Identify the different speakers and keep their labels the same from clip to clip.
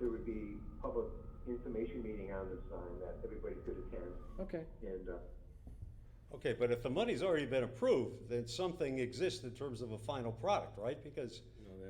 Speaker 1: there would be public information meeting on the sign that everybody could attend,
Speaker 2: Okay,
Speaker 1: and, uh,
Speaker 3: Okay, but if the money's already been approved, then something exists in terms of a final product, right? Because,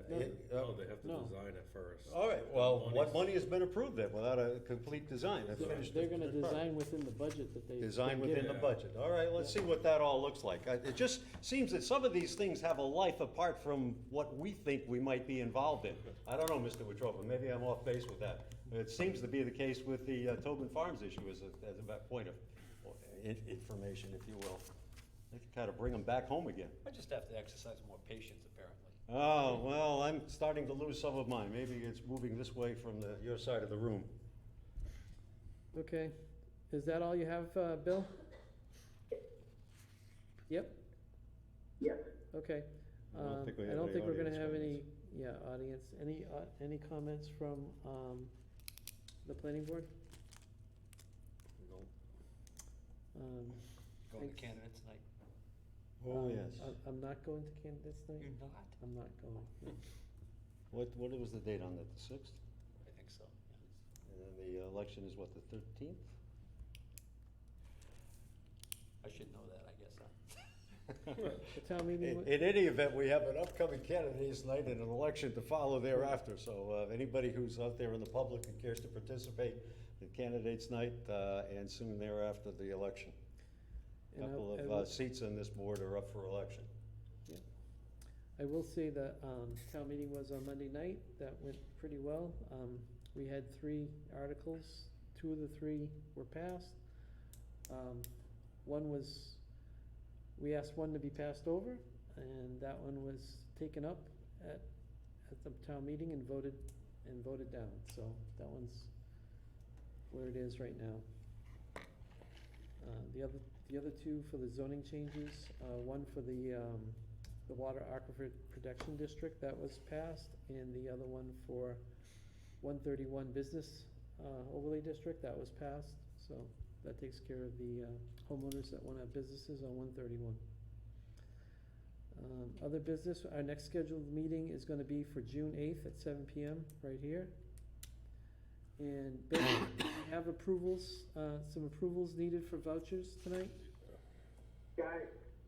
Speaker 4: No, they have
Speaker 3: No,
Speaker 4: to, no, they have to
Speaker 2: no.
Speaker 4: design it first.
Speaker 5: Oh,
Speaker 3: all right, well, what
Speaker 4: Money's-
Speaker 3: money has been approved then without a complete design? a finished
Speaker 2: they're gonna
Speaker 3: product?
Speaker 2: design within the budget that they.
Speaker 3: Design
Speaker 2: been
Speaker 3: within the
Speaker 2: given.
Speaker 3: budget. All right, let's see what that all looks like. I- It just seems that some of these things have a life apart from what we think we might be involved in. I don't know, Mr. Wetruba, maybe I'm off base with that. It seems to be the case with the uh, Tobin Farms issue as a, as a back point of uh, in- information, if you will. They can kind of bring them back home again.
Speaker 5: I just have to exercise more patience, apparently.
Speaker 3: Oh, well, I'm starting to lose some of mine. Maybe it's moving this way from the, your side of the room.
Speaker 2: Okay, is that all you have, uh, Bill? Yep,
Speaker 1: yes,
Speaker 2: okay.
Speaker 3: I don't
Speaker 2: Um,
Speaker 3: think we
Speaker 2: I
Speaker 3: have
Speaker 2: don't
Speaker 3: any
Speaker 2: think we're gonna
Speaker 3: audience
Speaker 2: have any,
Speaker 3: comments.
Speaker 2: yeah, audience, any, uh, any comments from, um, the planning board?
Speaker 4: No.
Speaker 2: Um,
Speaker 5: Going to
Speaker 2: Thanks.
Speaker 5: candidates night.
Speaker 3: Oh,
Speaker 2: um,
Speaker 3: yes. Mm.
Speaker 2: I- I'm not going to candidates night,
Speaker 5: You're not?
Speaker 2: I'm not going, no.
Speaker 3: What, what was the date on that, the sixth?
Speaker 5: I think so, yeah.
Speaker 3: And then the election is what, the thirteenth?
Speaker 5: I should know that, I guess, huh?
Speaker 2: The town meeting,
Speaker 3: In
Speaker 2: wa-
Speaker 3: in any event, we have an upcoming candidates night and an election to follow thereafter, so uh, anybody who's out there in the public and cares to participate, the candidates night, uh, and soon thereafter, the election. A
Speaker 2: and I-
Speaker 3: Couple
Speaker 2: I
Speaker 3: of
Speaker 2: will-
Speaker 3: uh, seats on this board are up for election.
Speaker 2: I will say the um, town meeting was on Monday night, that went pretty well. Um, We had three articles, two of the three were passed. Um, One was, we asked one to be passed over, and that one was taken up at, at the town meeting and voted, and voted down. So that one's where it is right now. Uh, The other, the other two for the zoning changes, uh, one for the um, the Water Aquifer Protection District that was passed, and the other one for one thirty-one Business uh, Overlay District that was passed. So that takes care of the uh, homeowners that want to have businesses on one thirty-one. Um, Other business, our next scheduled meeting is going to be for June eighth at seven PM, right here. And Bill, we have approvals, uh, some approvals needed for vouchers tonight?
Speaker 1: Can I,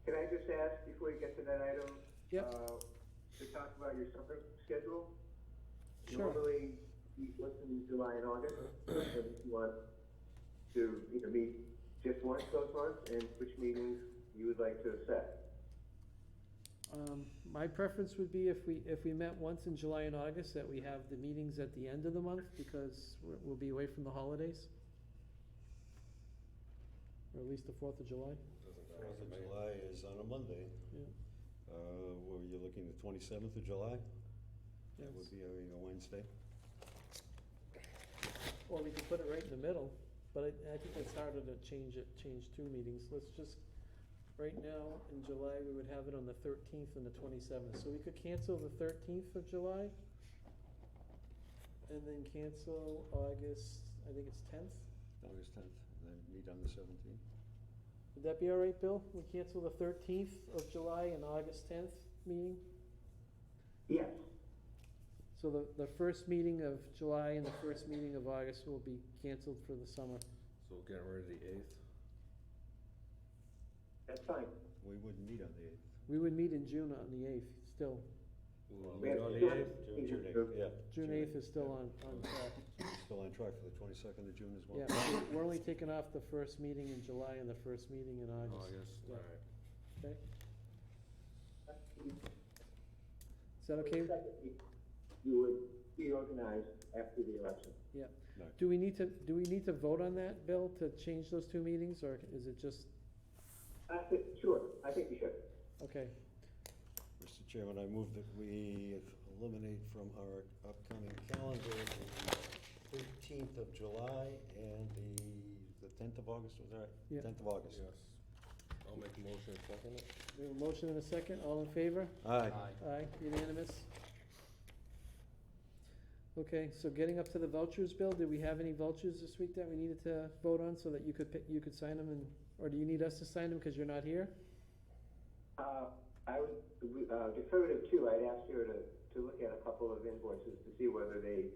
Speaker 1: can I just ask, before you get to that item?
Speaker 2: Yep.
Speaker 1: uh, To talk about your summer schedule?
Speaker 2: Sure.
Speaker 1: Normally, you listen in July and August, and if you want to, you know, meet just once those months, and which meetings you would like to set.
Speaker 2: Um, my preference would be if we, if we met once in July and August, that we have the meetings at the end of the month, because we're- we'll be away from the holidays. Or at least the Fourth of July,
Speaker 4: Doesn't matter
Speaker 3: Fourth
Speaker 4: to
Speaker 3: of
Speaker 4: me.
Speaker 3: July is on a Monday.
Speaker 2: yeah.
Speaker 3: Uh, Were you looking the twenty-seventh of July? That
Speaker 2: yes.
Speaker 3: would be, I mean, a Wednesday.
Speaker 2: Or we could put it right in the middle, but I, I think it's harder to change it, change two meetings, let's just, right now, in July, we would have it on the thirteenth and the twenty-seventh, so we could cancel the thirteenth of July. And then cancel August, I think it's tenth,
Speaker 3: August tenth, and then meet on the seventeenth.
Speaker 2: would that be all right, Bill? We cancel the thirteenth of July and August tenth meeting?
Speaker 1: Yes,
Speaker 2: So the, the first meeting of July and the first meeting of August will be canceled for the summer.
Speaker 4: So we'll get rid of the eighth.
Speaker 1: that's fine.
Speaker 3: We wouldn't meet on the eighth.
Speaker 2: We would meet in June on the eighth, still.
Speaker 4: We'll
Speaker 1: We
Speaker 4: meet
Speaker 1: have
Speaker 4: on the
Speaker 1: to do it.
Speaker 4: eighth.
Speaker 3: June, June eighth, yeah.
Speaker 2: June eighth is still on, on track.
Speaker 3: Still on track for the twenty-second of June as well.
Speaker 2: Yeah, we're- we're only taking off the first meeting in July and the first meeting in
Speaker 4: August,
Speaker 3: Oh,
Speaker 2: August.
Speaker 4: Oh, all
Speaker 2: Yeah.
Speaker 4: right.
Speaker 2: Okay, is that okay?
Speaker 1: You would reorganize after the election.
Speaker 2: Do we need to, do we need to vote on that, Bill, to change those two meetings, or is it just,
Speaker 1: I think, sure, I think you should.
Speaker 2: okay,
Speaker 3: Mr. Chairman, I move that we eliminate from our upcoming calendar the thirteenth of July and the, the tenth of August, was that right?
Speaker 2: Yeah.
Speaker 3: Tenth of August.
Speaker 4: Yes. I'll make a motion and second it.
Speaker 2: we have a motion and a second, all in favor?
Speaker 3: Aye.
Speaker 2: Aye, unanimous. Okay, so getting up to the vouchers, Bill, did we have any vouchers this week that we needed to vote on so that you could, pick- you could sign them and, or do you need us to sign them because you're not here?
Speaker 1: Uh, I would, uh, deferred it too, I'd asked her to, to look at a couple of invoices to see whether they